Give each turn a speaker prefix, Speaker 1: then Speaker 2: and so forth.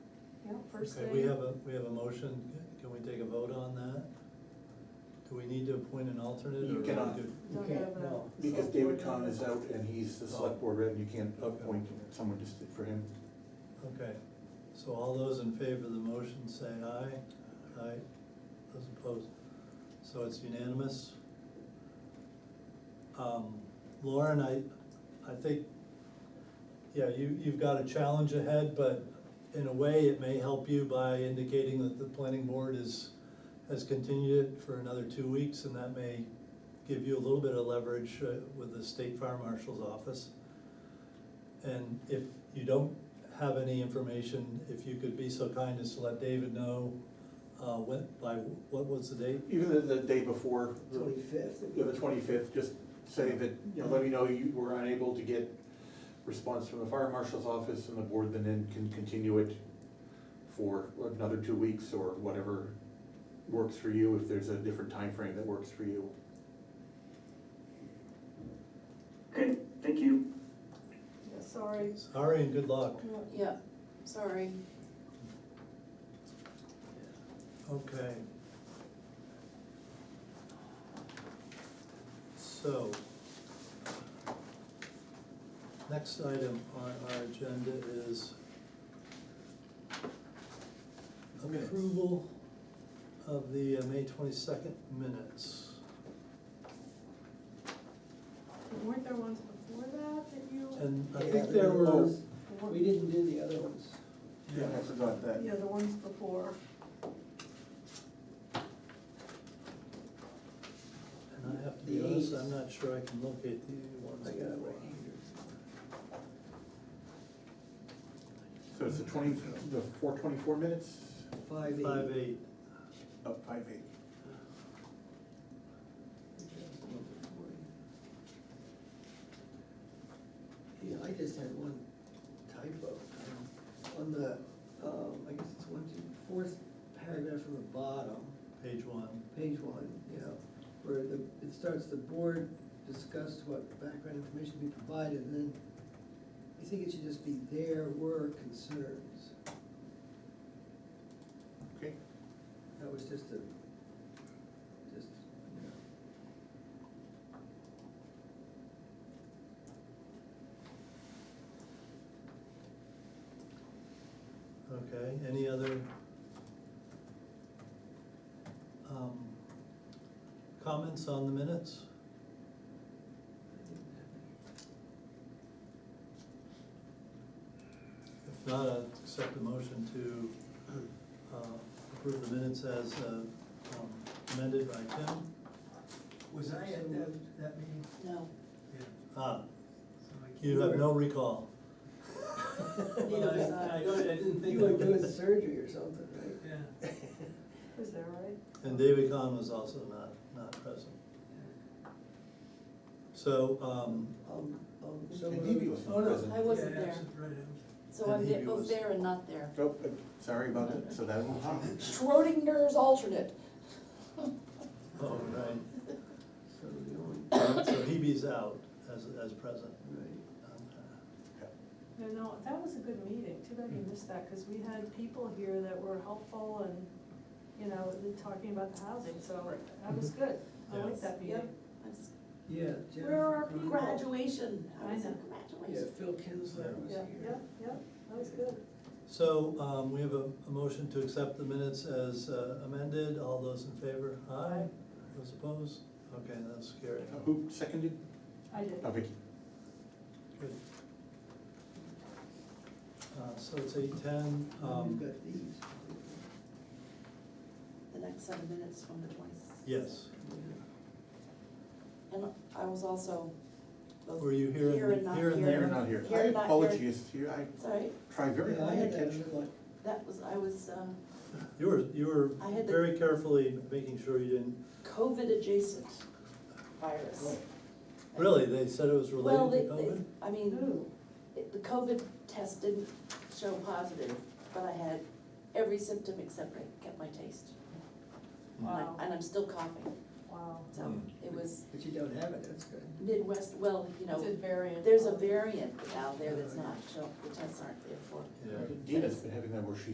Speaker 1: first
Speaker 2: Okay,
Speaker 1: day.
Speaker 2: We have a, we have a motion, can we take a vote on that? Do we need to appoint an alternate?
Speaker 3: You
Speaker 2: or we
Speaker 3: cannot.
Speaker 2: do-
Speaker 1: You
Speaker 4: Okay,
Speaker 1: can't have a
Speaker 4: no.
Speaker 3: Because
Speaker 1: select
Speaker 3: David
Speaker 1: board
Speaker 3: Kahn
Speaker 1: member.
Speaker 3: is out and he's the select board rep, you can't appoint someone just for him.
Speaker 2: Okay, so all those in favor of the motion say aye. Aye, those opposed. So it's unanimous. Um, Lauren, I, I think, yeah, you, you've got a challenge ahead, but in a way, it may help you by indicating that the planning board is, has continued it for another two weeks, and that may give you a little bit of leverage uh, with the state fire marshal's office. And if you don't have any information, if you could be so kind as to let David know, uh, when, by, what was the date?
Speaker 3: Even the, the day before, the-
Speaker 4: Twenty-fifth.
Speaker 3: yeah, the twenty-fifth, just say that, you know, let me know you were unable to get response from the fire marshal's office and the board then in- can continue it for another two weeks or whatever works for you, if there's a different time frame that works for you.
Speaker 5: Okay, thank you.
Speaker 1: Yeah, Sorry.
Speaker 2: Sorry and good luck.
Speaker 6: Yeah, sorry.
Speaker 2: Okay. So. Next item on our agenda is
Speaker 4: Minutes.
Speaker 2: approval of the uh, May twenty-second minutes.
Speaker 1: Weren't there ones before that that you?
Speaker 2: And I think there were,
Speaker 4: Oh. We didn't do the other ones.
Speaker 3: Yeah, I forgot that.
Speaker 1: Yeah, the ones before.
Speaker 2: and I have to be
Speaker 4: The
Speaker 2: honest,
Speaker 4: eights.
Speaker 2: I'm not sure I can locate the ones.
Speaker 4: I got it right
Speaker 3: So it's the twenty, the four twenty-four minutes?
Speaker 4: Five eight.
Speaker 2: Five eight.
Speaker 3: Oh, five eight.
Speaker 4: Yeah, I just had one typo. On the, um, I guess it's one, two, fourth paragraph from the bottom,
Speaker 2: Page one.
Speaker 4: page one, yeah, where the, it starts, the board discussed what background information be provided, and then I think it should just be there were concerns.
Speaker 3: Okay.
Speaker 4: That was just a, just, you know.
Speaker 2: Okay, any other um, comments on the minutes? If not, I'd accept the motion to uh, approve the minutes as uh, um, amended by Tim.
Speaker 7: Was I
Speaker 4: uh,
Speaker 7: at that, that meeting?
Speaker 6: No,
Speaker 7: Yeah.
Speaker 2: Ah,
Speaker 7: So I can't-
Speaker 2: you have no recall.
Speaker 7: Well, I- I don't, I didn't think.
Speaker 4: You were
Speaker 7: I
Speaker 4: doing
Speaker 7: was.
Speaker 4: surgery or something, right?
Speaker 7: Yeah.
Speaker 1: Is that right?
Speaker 2: And David Kahn was also not, not present. So, um,
Speaker 4: Um, um, so.
Speaker 3: And Hebe was
Speaker 4: Oh, no,
Speaker 3: present.
Speaker 6: I wasn't
Speaker 7: Yeah,
Speaker 6: there,
Speaker 7: absent, Right, absent.
Speaker 6: so I'm
Speaker 2: And
Speaker 6: there-
Speaker 2: he was-
Speaker 6: both there and not there.
Speaker 3: Oh, uh, sorry about that, so that will happen.
Speaker 6: Schrodinger's alternate.
Speaker 2: oh, right.
Speaker 4: So the only,
Speaker 2: So Hebe's out as, as present. Um,
Speaker 4: right,
Speaker 1: No, no, that was a good meeting, too bad
Speaker 2: Mm.
Speaker 1: you missed that, because we had people here that were helpful and, you know, talking about the housing, so that
Speaker 2: Mm-hmm.
Speaker 1: was good. I
Speaker 2: Yeah.
Speaker 1: liked that meeting.
Speaker 6: Yep. that's-
Speaker 4: yeah,
Speaker 1: Where are our
Speaker 4: Jennifer. Connelly.
Speaker 1: people?
Speaker 6: Graduation, I
Speaker 1: I
Speaker 6: was
Speaker 1: know.
Speaker 6: at
Speaker 4: Yeah,
Speaker 6: graduation.
Speaker 4: Phil Kinsler was
Speaker 1: Yep,
Speaker 4: here.
Speaker 1: yep, yep, that was good.
Speaker 2: So, um, we have a, a motion to accept the minutes as uh, amended, all those in favor, aye?
Speaker 1: Aye.
Speaker 2: Those opposed? Okay, that's carried.
Speaker 3: Who seconded?
Speaker 1: I did.
Speaker 3: Oh, Vicky.
Speaker 2: Good. Uh, so it's eight ten,
Speaker 4: Oh, You've
Speaker 2: um,
Speaker 4: got these.
Speaker 6: The next seven minutes from the twenty-sixth.
Speaker 2: yes,
Speaker 6: And I was also both
Speaker 2: Were you here and-
Speaker 6: here and not
Speaker 2: here
Speaker 6: here.
Speaker 2: and
Speaker 3: You're not here.
Speaker 6: Here, not here.
Speaker 3: Apologies, here, I
Speaker 6: Sorry,
Speaker 3: try very
Speaker 4: Yeah, I
Speaker 3: hard to
Speaker 4: had that
Speaker 3: catch.
Speaker 4: in my-
Speaker 6: that was, I was uh,
Speaker 2: you were, you
Speaker 6: I
Speaker 2: were
Speaker 6: had the-
Speaker 2: very carefully making sure you didn't,
Speaker 6: COVID adjacent virus.
Speaker 2: Oh. really, they said it was
Speaker 6: Well,
Speaker 2: related to
Speaker 6: they, they,
Speaker 2: COVID?
Speaker 6: I mean, it- the COVID test didn't show positive, but I had every symptom except I kept my taste. And I-
Speaker 1: Wow,
Speaker 6: And I'm still coughing,
Speaker 1: wow.
Speaker 6: so it was
Speaker 4: But you don't have it, that's good.
Speaker 6: Midwest, well, you know,
Speaker 1: It's a variant.
Speaker 6: there's a variant out there that's not, show- the tests aren't there for.
Speaker 2: Yeah.
Speaker 3: Dina's been having that where she